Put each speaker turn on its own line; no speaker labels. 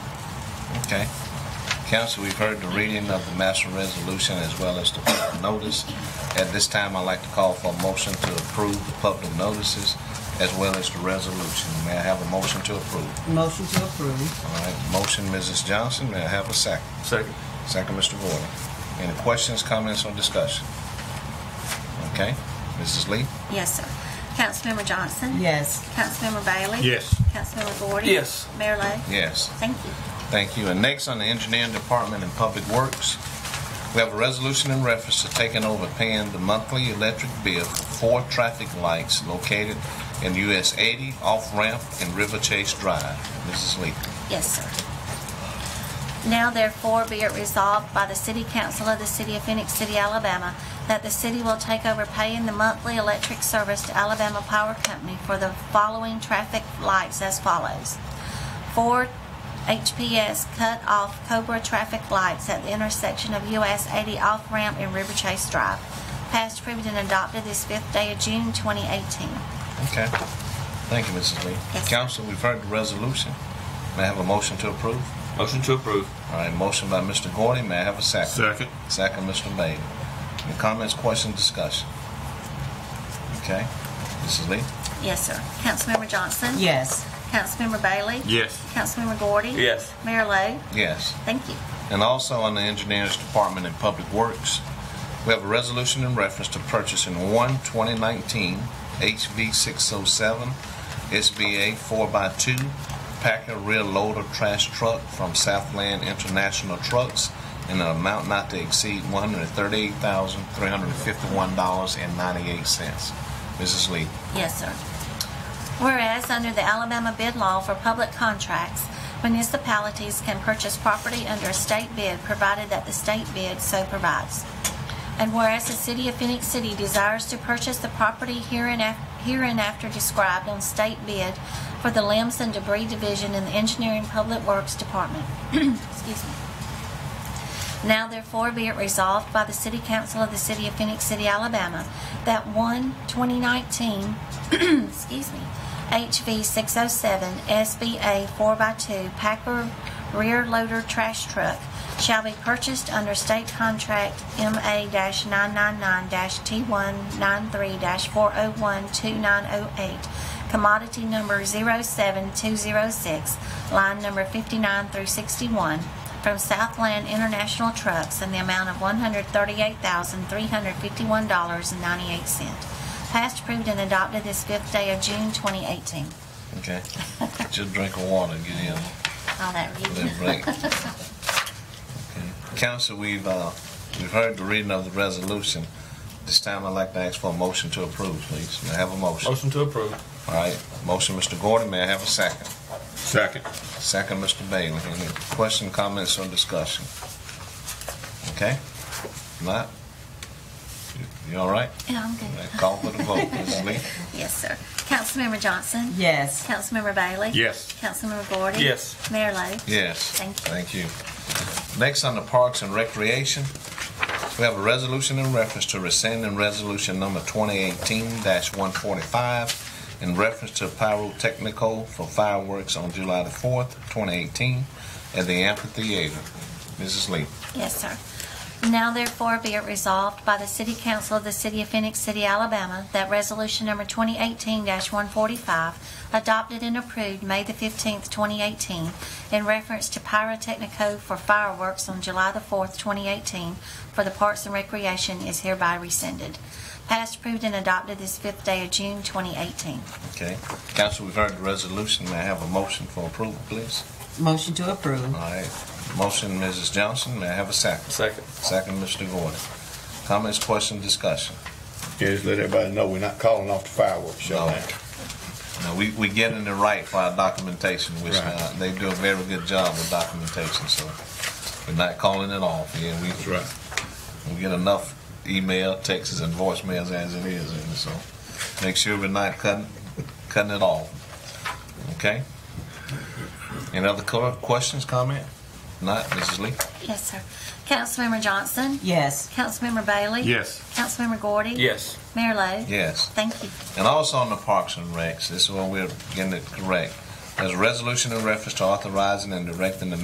Okay. Council, we've heard the reading of the master resolution as well as the public notice. At this time, I'd like to call for a motion to approve the public notices as well as the resolution. May I have a motion to approve?
Motion to approve.
All right, motion, Mrs. Johnson, may I have a second?
Second.
Second, Mr. Gordon. Any questions, comments, or discussion? Okay, Mrs. Lee?
Yes, sir. Councilmember Johnson?
Yes.
Councilmember Bailey?
Yes.
Councilmember Gordon?
Yes.
Mayor Lo?
Yes.
Thank you.
Thank you. And next on the Engineering Department and Public Works, we have a resolution in reference to taking over paying the monthly electric bill for four traffic lights located in US 80 off ramp and River Chase Drive. Mrs. Lee.
Yes, sir. Now therefore be it resolved by the City Council of the City of Phoenix City, Alabama, that the city will take over paying the monthly electric service to Alabama Power Company for the following traffic lights as follows. Four HPS cut-off Cobra traffic lights at the intersection of US 80 off-ramp and River Chase Drive, passed, approved, and adopted this fifth day of June 2018.
Okay. Thank you, Mrs. Lee.
Yes, sir.
Council, we've heard the resolution. May I have a motion to approve?
Motion to approve.
All right, motion by Mr. Gordy. May I have a second?
Second.
Second, Mr. Bailey. Any comments, questions, discussion? Okay. Mrs. Lee?
Yes, sir. Councilmember Johnson?
Yes.
Councilmember Bailey?
Yes.
Councilmember Gordy?
Yes.
Mayor Lo?
Yes.
Thank you.
and also on the Engineers Department in Public Works. We have a resolution in reference to purchasing one 2019 HV 607 SBA 4x2 Packer rear loader trash truck from Southland International Trucks in an amount not to exceed $138,351.98. Mrs. Lee.
Yes, sir. Whereas, under the Alabama bid law for public contracts, municipalities can purchase property under a state bid provided that the state bid so provides. And whereas the city of Phoenix City desires to purchase the property hereinaf- hereinafter described on state bid for the limbs and debris division in the Engineering Public Works Department. Excuse me. Now therefore be it resolved by the City Council of the City of Phoenix City, Alabama, that one 2019, excuse me, HV 607 SBA 4x2 Packer Rear Loader Trash Truck shall be purchased under State Contract MA-999-T193-4012908, commodity number 07206, line number 59 through 61, from Southland International Trucks in the amount of $138,351.98. Passed, approved, and adopted this fifth day of June 2018.
Okay. Just drink of water and get in.
All that reading.
Little break. Council, we've, uh, we've heard the reading of the resolution. This time I'd like to ask for a motion to approve, please. May I have a motion?
Motion to approve.
All right, motion, Mr. Gordon, may I have a second?
Second.
Second, Mr. Bailey. Any question, comments, or discussion? Okay? Not? You- You all right?
Yeah, I'm
All right,
good.
Call for the vote, Mrs. Lee.
Yes, sir. Councilmember Johnson?
Yes.
Councilmember Bailey?
Yes.
Councilmember Gordon?
Yes.
Mayor Lo?
Yes.
Thank you.
Thank you. Next on the Parks and Recreation, we have a resolution in reference to rescinding resolution number 2018-145 in reference to pyrotechnical for fireworks on July the 4th, 2018, at the amphitheater. Mrs. Lee.
Yes, sir. Now therefore be it resolved by the City Council of the City of Phoenix City, Alabama, that Resolution Number 2018-145, adopted and approved May the 15th, 2018, in reference to pyrotechnico for fireworks on July the 4th, 2018, for the Parks and Recreation is hereby rescinded. Passed, approved, and adopted this fifth day of June 2018.
Okay. Council, we've heard the resolution. May I have a motion for approval, please?
Motion to approve.
All right. Motion, Mrs. Johnson. May I have a second?
Second.
Second, Mr. Gordon. Comments, questions, discussion?
Yeah, just let everybody know we're not calling off the fireworks show
No.
now.
No, we, we get in the right for our documentation, which
Right.
uh, they do a very good job with documentation, so we're not calling it off. Yeah, we,
That's right.
we get enough email, texts, and voicemails as it is, and so make sure we're not cutting, cutting it off. Okay? Any other co- questions, comment? Not, Mrs. Lee?
Yes, sir. Councilmember Johnson?
Yes.
Councilmember Bailey?
Yes.
Councilmember Gordy?
Yes.
Mayor Lo?
Yes.
Thank you.
And also on the Parks and Recs, this is where we're getting it correct. There's a resolution in reference to authorizing and directing the